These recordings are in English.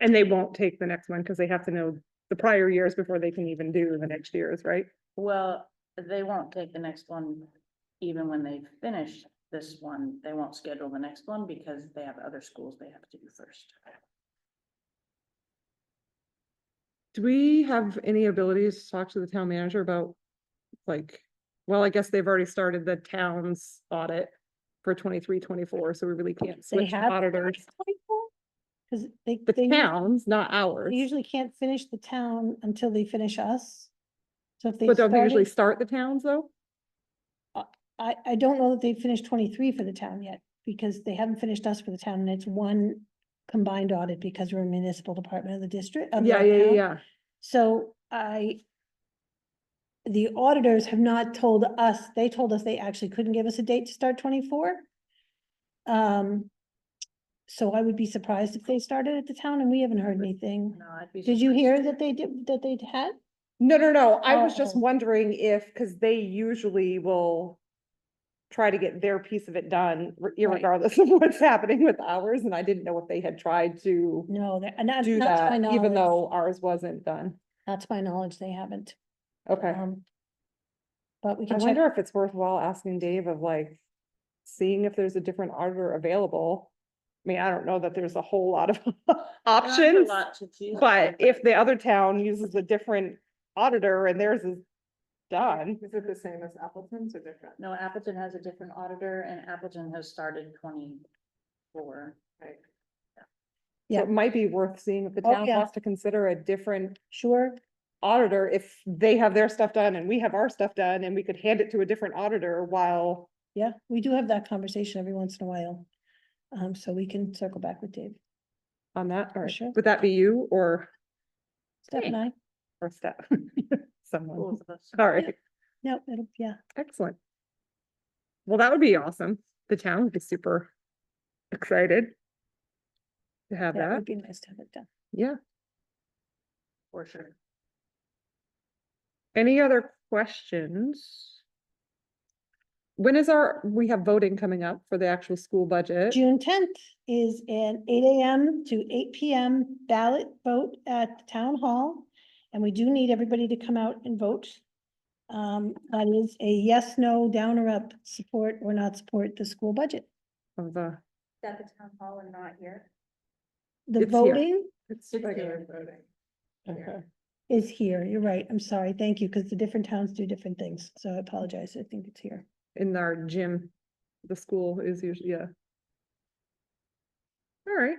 And they won't take the next one because they have to know the prior years before they can even do the next year's, right? Well, they won't take the next one, even when they've finished this one, they won't schedule the next one because they have other schools they have to do first. Do we have any abilities to talk to the town manager about, like, well, I guess they've already started the town's audit for 23, 24, so we really can't They switch have. auditors. Cause they, they The usu- towns, not they ours, usually can't finish the town until they finish us. So if they but don't they usually started, start the towns though? I, I don't know that they finished twenty-three for the town yet, because they haven't finished us for the town, and it's one combined audit because we're a municipal department of the district. of Yeah, our yeah, yeah, town. yeah. So I, the auditors have not told us, they told us they actually couldn't give us a date to start twenty-four. Um, so I would be surprised if they started at the town and we haven't heard anything. No, I'd be. Did you surprised. hear that they did, that they had? No, no, no, I was just Oh. wondering if, because they usually will try to get their piece of it done r- irregardless of what's happening with ours, and I didn't know if they had tried to No, they're- not, not do to my that, even knowledge, though ours wasn't done. not to my knowledge, they haven't. Okay, Um, But we I can check, wonder if it's worthwhile asking Dave of like, seeing if there's a different auditor available. I mean, I don't know that there's a whole lot of There aren't a options, lot to choose but from, if the other town uses a different auditor and theirs is done. Is it the same as Appleton's or different? No, Appleton has a different auditor and Appleton has started twenty-four. So It might be worth seeing if the Oh, town yeah. has to consider a different sure, auditor, if they have their stuff done and we have our stuff done, and we could hand it to a different auditor while. yeah, we do have that conversation every once in a while. Um, so we can circle back with Dave. On that, or sure. would that be you or, Steph and I, or Steph? Someone, Both of us. all right, no, it'll, yeah, excellent. Well, that would be awesome. The town would be super excited to have that that, would be nice to have it done. yeah. For sure. Any other questions? When is our, we have voting coming up for the actual school budget. June tenth is an eight AM to eight PM ballot vote at the town hall. And we do need everybody to come out and vote. Um, that is a yes, no, down or up, support or not support the school budget. Of the, At the town hall and not here? The It's here. voting it's It's like, here. okay. is here. You're right. I'm sorry. Thank you, because the different towns do different things. So I apologize. I think it's here. in our gym. The school is usually, yeah. All right,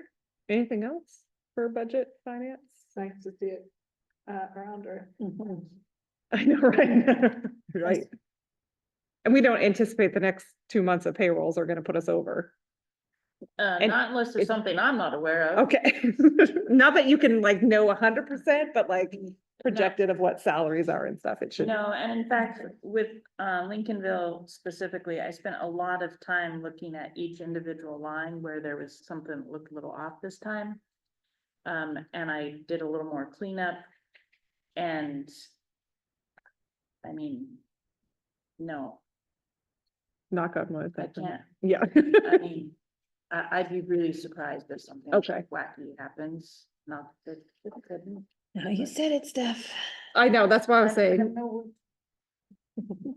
anything else for budget finance? It's nice to see it uh, around or. Mm-hmm. I know, right? Right. And we don't anticipate the next two months of payrolls are gonna put us over. Uh, And not unless there's it's- something I'm not aware of. Okay, not that you can like know a hundred percent, but like projected of what salaries are and stuff, it should. No, and in fact, with uh Lincolnville specifically, I spent a lot of time looking at each individual line where there was something that looked a little off this time. Um, and I did a little more cleanup and I mean, no, Knock on wood. I that can- can't. Yeah. I mean, I I'd be really surprised if something Okay. wacky happens, not that it couldn't. Now you said it, Steph. I know, that's why I was I- I don't saying know.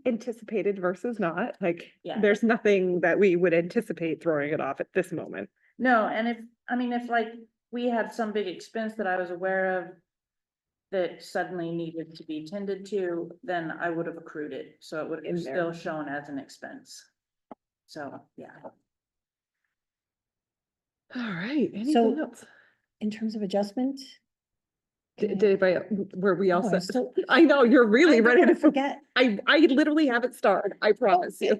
anticipated versus not, like, Yeah. there's nothing that we would anticipate throwing it off at this moment. No, and if, I mean, if like, we had some big expense that I was aware of. That suddenly needed to be tended to, then I would have accrued it, so it would In have there. still shown as an expense. So, yeah, All right, So- anything else? In terms of adjustment. D- Okay. Did anybody, el- were we all Oh, I set? still- I know, you're really I'm ready gonna to, forget. Forget. I, I literally haven't started, I promise you.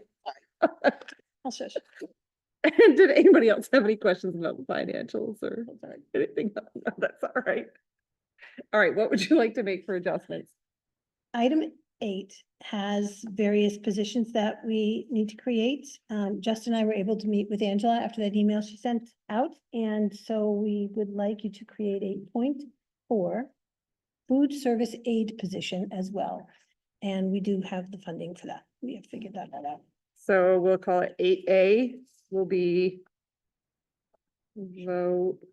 I'll Oh, shush. Did anybody else have any questions about the financials or anything? No, no, That's all right. All right, what would you like to make for adjustments? Item eight has various positions that we need to create. Um, Justin and I were able to meet with Angela after that email she sent out, and so we would like you to create eight point four food service aid position as well. And we do have the funding for that. We have figured that out. So we'll call it eight A will be vote